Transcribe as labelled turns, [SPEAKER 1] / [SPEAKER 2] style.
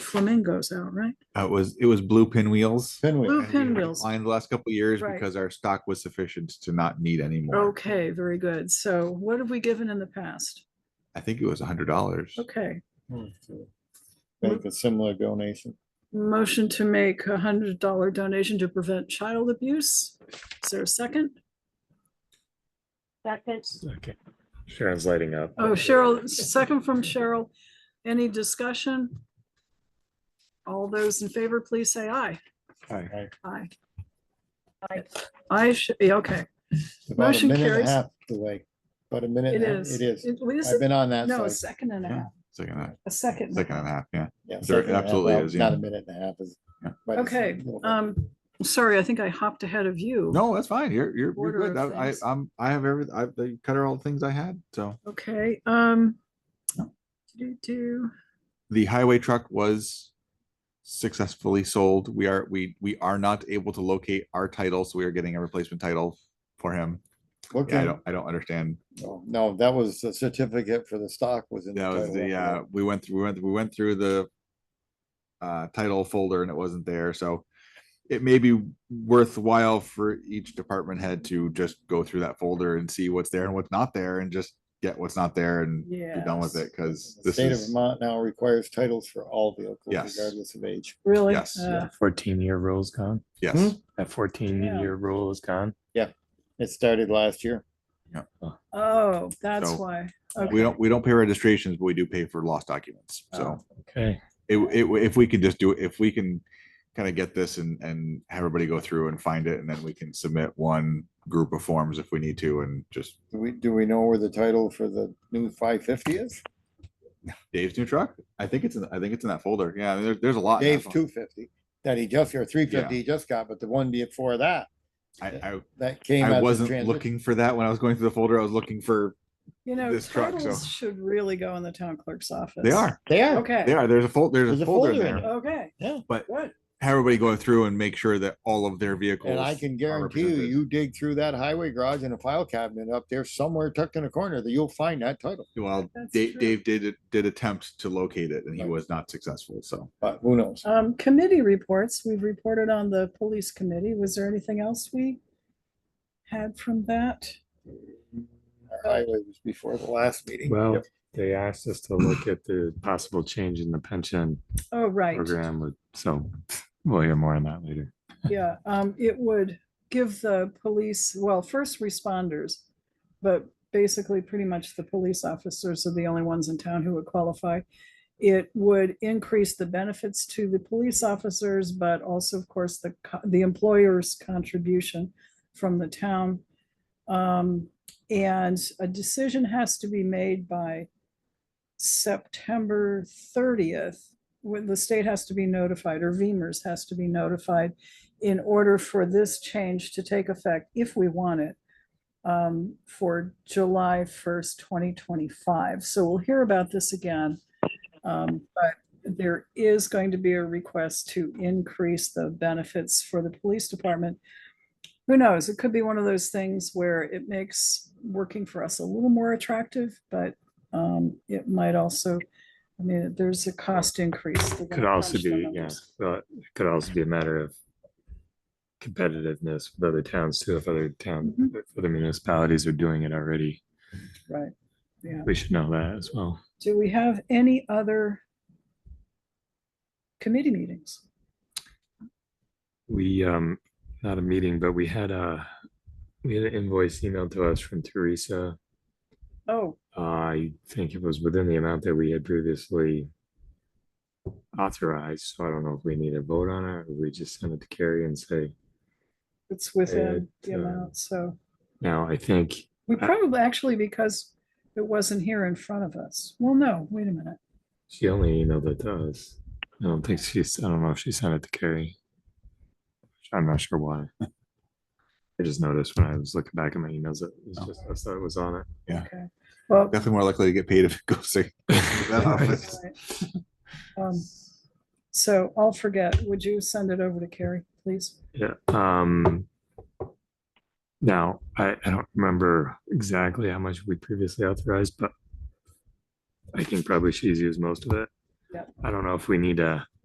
[SPEAKER 1] flamingos out, right?
[SPEAKER 2] Uh, It was, it was blue pinwheels.
[SPEAKER 1] Blue pinwheels.
[SPEAKER 2] Lined the last couple of years
[SPEAKER 1] Right.
[SPEAKER 2] because our stock was sufficient to not need any more.
[SPEAKER 1] Okay, very good. So what have we given in the past?
[SPEAKER 2] I think it was a hundred dollars.
[SPEAKER 1] Okay.
[SPEAKER 2] Hmm.
[SPEAKER 3] Make a similar donation.
[SPEAKER 1] Motion to make a hundred dollar donation to prevent child abuse. Is there a second?
[SPEAKER 4] Second,
[SPEAKER 5] Okay. Sharon's lighting up.
[SPEAKER 1] Oh, Cheryl, second from Cheryl. Any discussion? All those in favor, please say aye.
[SPEAKER 2] Aye.
[SPEAKER 1] Aye.
[SPEAKER 4] Aye.
[SPEAKER 1] I should be, okay.
[SPEAKER 3] About a
[SPEAKER 1] Motion
[SPEAKER 3] minute and a
[SPEAKER 1] carries.
[SPEAKER 3] half the way, about a minute.
[SPEAKER 1] It
[SPEAKER 3] and a half-
[SPEAKER 1] is.
[SPEAKER 3] It is.
[SPEAKER 1] It- wait, is
[SPEAKER 3] I've
[SPEAKER 1] it?
[SPEAKER 3] been on that
[SPEAKER 1] No, a
[SPEAKER 3] side.
[SPEAKER 1] second and a
[SPEAKER 2] Yeah.
[SPEAKER 1] half,
[SPEAKER 2] Second, and
[SPEAKER 1] a
[SPEAKER 2] a-
[SPEAKER 1] second.
[SPEAKER 2] second and a half, yeah.
[SPEAKER 3] Yeah,
[SPEAKER 2] there
[SPEAKER 3] second and a half.
[SPEAKER 2] absolutely
[SPEAKER 3] Well,
[SPEAKER 2] is,
[SPEAKER 3] Not
[SPEAKER 2] yeah.
[SPEAKER 3] a minute and a half is.
[SPEAKER 2] Yeah.
[SPEAKER 3] but it's a
[SPEAKER 1] Okay,
[SPEAKER 3] little bit.
[SPEAKER 1] um, sorry, I think I hopped ahead of you.
[SPEAKER 2] No, that's fine. You're, you're, you're
[SPEAKER 1] Order
[SPEAKER 2] good.
[SPEAKER 1] of
[SPEAKER 2] I, I,
[SPEAKER 1] things.
[SPEAKER 2] I'm, I have every, I, they cut out all the things I had, so.
[SPEAKER 1] Okay, um.
[SPEAKER 2] No.
[SPEAKER 1] Do, do,
[SPEAKER 2] the highway truck was successfully sold. We are, we, we are not able to locate our title, so we are getting a replacement title for him.
[SPEAKER 3] Okay.
[SPEAKER 2] Yeah, I don't, I don't understand.
[SPEAKER 3] Oh, No, that was the certificate for the stock was in.
[SPEAKER 2] That was
[SPEAKER 3] title of
[SPEAKER 2] the,
[SPEAKER 3] it.
[SPEAKER 2] uh, we went through, we went, we went through the uh, title folder and it wasn't there, so it may be worthwhile for each department head to just go through that folder and see what's there and what's not there and just get what's not there and be done with
[SPEAKER 1] Yes.
[SPEAKER 2] it, cause
[SPEAKER 3] The
[SPEAKER 2] this
[SPEAKER 3] state of
[SPEAKER 2] is,
[SPEAKER 3] Vermont now requires titles for all vehicles
[SPEAKER 2] Yes.
[SPEAKER 3] regardless of age.
[SPEAKER 1] Really?
[SPEAKER 2] Yes.
[SPEAKER 1] Uh,
[SPEAKER 5] Fourteen year rule's gone.
[SPEAKER 3] Hmm?
[SPEAKER 2] yes,
[SPEAKER 5] That fourteen year rule is gone.
[SPEAKER 3] It started last year.
[SPEAKER 1] Oh, that's
[SPEAKER 2] So, uh,
[SPEAKER 1] why.
[SPEAKER 2] we
[SPEAKER 1] Okay.
[SPEAKER 2] don't, we don't pay registrations, but we do pay for lost documents, so.
[SPEAKER 3] Oh.
[SPEAKER 1] Oh,
[SPEAKER 5] Okay.
[SPEAKER 2] it, it, if we can just do, it, if we can kind of get this and, and have everybody go through and find it, and then we can submit one group of forms if we need to, and just
[SPEAKER 3] Do we, do we know where the title for the new five fifty is?
[SPEAKER 2] Dave's new truck. I think it's, in I think it's in that folder. Yeah, there's, there's a lot. in that
[SPEAKER 3] Dave's
[SPEAKER 2] fol-
[SPEAKER 3] two fifty, that he just, or three fifty he just got, but the one before that,
[SPEAKER 2] I,
[SPEAKER 3] that
[SPEAKER 2] I,
[SPEAKER 3] came. as
[SPEAKER 2] I
[SPEAKER 3] a
[SPEAKER 2] wasn't
[SPEAKER 3] transi-
[SPEAKER 2] looking for that when I was going through the folder. I was looking for,
[SPEAKER 1] You know,
[SPEAKER 2] this truck, so-
[SPEAKER 1] titles should really go in the town clerk's office.
[SPEAKER 2] they are,
[SPEAKER 3] They are.
[SPEAKER 2] they
[SPEAKER 1] Okay,
[SPEAKER 2] are, there's a fold, there's
[SPEAKER 3] There's
[SPEAKER 2] a
[SPEAKER 3] a
[SPEAKER 2] folder in
[SPEAKER 3] folder in it.
[SPEAKER 2] there.
[SPEAKER 1] okay.
[SPEAKER 2] But-
[SPEAKER 1] Good.
[SPEAKER 2] Have everybody go through and make sure that all of their vehicles.
[SPEAKER 3] And I can
[SPEAKER 2] are
[SPEAKER 3] guarantee you,
[SPEAKER 2] represented.
[SPEAKER 3] you dig through that highway garage and a file cabinet up there somewhere tucked in a corner that you'll find that title,
[SPEAKER 2] Well,
[SPEAKER 1] That's
[SPEAKER 2] Dave,
[SPEAKER 1] true.
[SPEAKER 2] Dave did, did attempt to locate it and he
[SPEAKER 3] Right.
[SPEAKER 2] was not successful, so.
[SPEAKER 3] but who knows?
[SPEAKER 1] Um, committee reports, we've reported on the police committee. Was there anything else we had from that?
[SPEAKER 3] Our Highway was before the last meeting.
[SPEAKER 5] Well, they asked us to look at the possible change in the pension
[SPEAKER 1] Oh, right,
[SPEAKER 5] program with, so we'll hear more on that later.
[SPEAKER 1] yeah, um, it would give the police, well, first responders, but basically pretty much the police officers are the only ones in town who would qualify. It would increase the benefits to the police officers, but also, of course, the, co- the employer's contribution from the town. Um, and a decision has to be made by September thirtieth, when the state has to be notified, or VEMR's has to be notified in order for this change to take effect, if we want it, um, for July first, twenty twenty-five. So we'll hear about this again. Um, but there is going to be a request to increase the benefits for the police department. Who knows? It could be one of those things where it makes working for us a little more attractive, but, um, it might also, I mean, there's a cost increase. They're gonna
[SPEAKER 5] Could also
[SPEAKER 1] crunch the
[SPEAKER 5] be, yeah,
[SPEAKER 1] numbers.
[SPEAKER 5] well, it could also be a matter of competitiveness with other towns too, if other town,
[SPEAKER 1] Mm-hmm.
[SPEAKER 5] if other municipalities are doing it already.
[SPEAKER 1] Right. Yeah.
[SPEAKER 5] We should know that as well.
[SPEAKER 1] Do we have any other committee meetings?
[SPEAKER 5] We, um, not a meeting, but we had a, we had an invoice emailed to us from Teresa.
[SPEAKER 1] Oh,
[SPEAKER 5] I think it was within the amount that we had previously authorized, so I don't know if we need a vote on it, or we just send it to Carrie and say,
[SPEAKER 1] it's within the
[SPEAKER 5] It, uh,
[SPEAKER 1] amount, so
[SPEAKER 5] now, I think
[SPEAKER 1] we
[SPEAKER 5] I-
[SPEAKER 1] probably, actually, because it wasn't here in front of us. Well, no, wait a minute.
[SPEAKER 5] she only emailed it to us. I don't think she's, I don't know if she sent it to Carrie. I'm not sure why. I just noticed when I was looking back at my emails, that it was
[SPEAKER 2] Oh.
[SPEAKER 5] just, us that was on it.
[SPEAKER 2] Yeah.
[SPEAKER 1] Okay. Well,
[SPEAKER 2] Definitely more likely to get paid if it goes to that office.
[SPEAKER 1] alright. Um, so I'll forget. Would you send it over to Carrie, please?
[SPEAKER 5] Yeah, um. Now, I, I don't remember exactly how much we previously authorized, but. I think probably she's used most of it.
[SPEAKER 1] Yep.
[SPEAKER 5] I don't know if we need a.